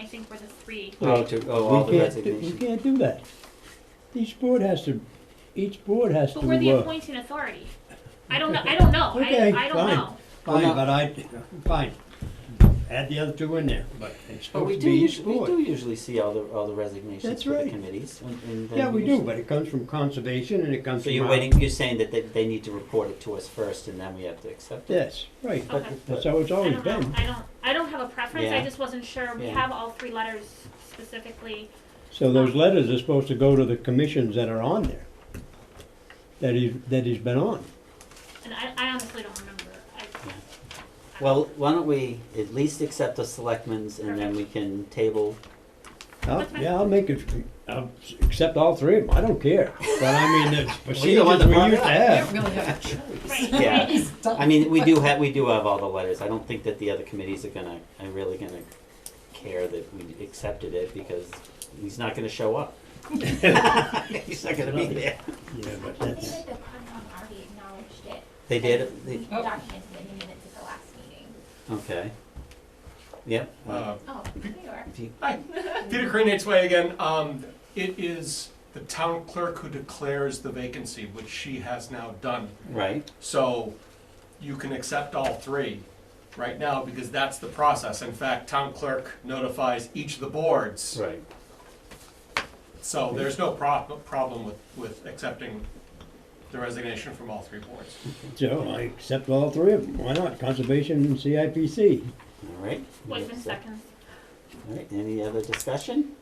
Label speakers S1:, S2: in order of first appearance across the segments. S1: think were the three.
S2: Oh, to, oh, all
S3: We
S2: the
S3: can't, do- we
S2: resignations.
S3: can't do that. Each board has to, each board has to,
S1: But we're the
S3: uh,
S1: appointing authority. I don't know, I don't know,
S3: Okay,
S1: I, I don't
S3: fine.
S1: know.
S2: Well,
S3: fine,
S2: no-
S3: but I, fine, add the other two in there, but it's
S2: But we
S3: supposed to
S2: do,
S3: be
S2: usu-
S3: each
S2: we do
S3: board.
S2: usually see all the, all the resignations
S3: That's
S2: for the
S3: right.
S2: committees. and- and then
S3: Yeah, we do, but it comes from conservation and it comes
S2: So
S3: from.
S2: you're
S3: our-
S2: waiting, you're saying that they, they need to report it to us first and then we have to accept it?
S3: Yes, right,
S1: Okay.
S3: that's how it's always
S1: I don't know.
S3: been.
S1: I don't, I don't have a preference, I
S2: Yeah.
S1: just wasn't sure, we
S2: Yeah.
S1: have all three letters specifically,
S3: So those letters are supposed to go to the commissions that are on there, that he, that he's been on.
S1: and I, I honestly don't remember, I can't.
S2: Well, why don't we at least accept the selectmen's and then we can table,
S3: I'll-
S1: Okay.
S3: Yeah, I'll make it, I'll s- accept all three of them, I don't care. But I mean, there's procedures
S2: one that
S3: we
S2: brought it
S3: used to
S2: up.
S4: You
S3: have.
S4: don't really have a choice.
S1: Right,
S2: Yeah.
S1: right,
S2: I mean, we do have, we do have all the letters. I don't think that the other committees are gonna, are really gonna care that we accepted it because he's not gonna show up. He's not gonna be there.
S3: Yeah, but
S5: I think
S3: that's,
S5: that the Concom already acknowledged it.
S2: They did,
S5: We
S2: they,
S4: Oh.
S5: documented it in the minutes at the last meeting.
S2: okay. Yep.
S6: Uh,
S5: Oh, there you are.
S2: If you-
S6: Hi, Peter Crane, Nate's Way again. Um, It is the town clerk who declares the vacancy, which she has now done.
S2: Right,
S6: So you can accept all three right now because that's the process. In fact, town clerk notifies each of the boards.
S2: right.
S6: So there's no prob- problem with, with accepting the resignation from all three boards.
S3: so I accept all three of them, why not? Conservation and CIPC.
S2: All right.
S1: Whitman seconds.
S2: All right, any other discussion?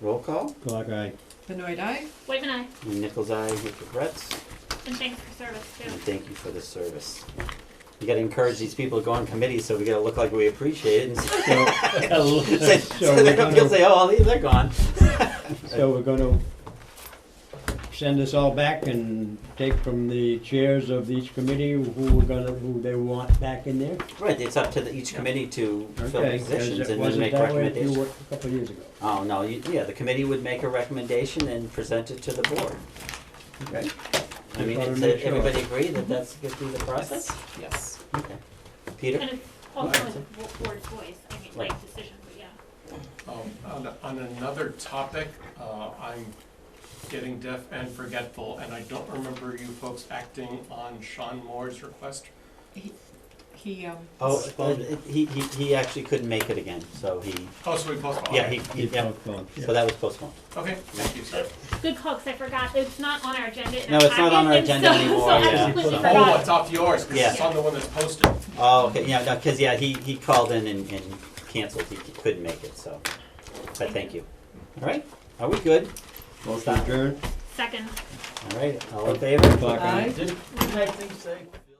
S2: Roll call,
S3: Clock eye.
S4: Benoit eh? eye?
S1: Whitman, I,
S2: and Nichols' eye, Nick regrets,
S1: and thanks for service too.
S2: and thank you for the service. You gotta encourage these people to go on committees, so we gotta look like we appreciate it, and
S3: So
S2: say,
S3: so
S2: so
S3: we're
S2: they're gonna
S3: gonna,
S2: say, oh, they- they're gone.
S3: so we're gonna send this all back and take from the chairs of each committee who we're gonna, who they want back in there?
S2: Right, it's up to the, each committee to fill
S3: Okay, 'cause
S2: positions
S3: it
S2: and then
S3: wasn't
S2: make
S3: that way a few
S2: recommendations.
S3: wa- A couple of years ago.
S2: Oh, no, you, yeah, the committee would make a recommendation and present it to the board.
S3: Okay.
S2: I
S3: Just
S2: mean,
S3: wanna
S2: it's,
S3: make sure.
S2: everybody agree that
S3: Mm-hmm.
S2: that's gonna be the process?
S4: Yes.
S2: Okay. Peter?
S1: And it's also in the bo- board's voice, I mean, like decision, but yeah.
S6: Um, On on another topic, uh, I'm getting deaf and forgetful, and I don't remember you folks acting on Sean Moore's request.
S4: He, um,
S2: Oh, uh, he, he, he actually couldn't make it again, so he,
S6: Oh, so we postponed.
S2: yeah, he, he-
S3: Keep
S2: yeah,
S3: postponed, yeah.
S2: so that was postponed.
S6: Okay, thank you, sir.
S1: Good call, because I forgot, it's not on our agenda. in
S2: No,
S1: our
S2: it's not on our
S1: packet,
S2: agenda
S1: and so-
S2: anymore,
S1: So
S2: yeah.
S1: I completely
S3: Oh,
S6: Oh,
S1: forgot.
S6: it's off yours, because it's
S2: Yeah.
S6: on the one that's posted.
S2: Oh, okay, yeah, no, cause yeah, he, he called in and, and canceled, he couldn't make it, so, but thank you. All right, are we good?
S3: Motion adjourned.
S1: Second.
S2: All right, all in favor?
S3: Clock eye.
S4: eye?
S7: Didn't, didn't that thing say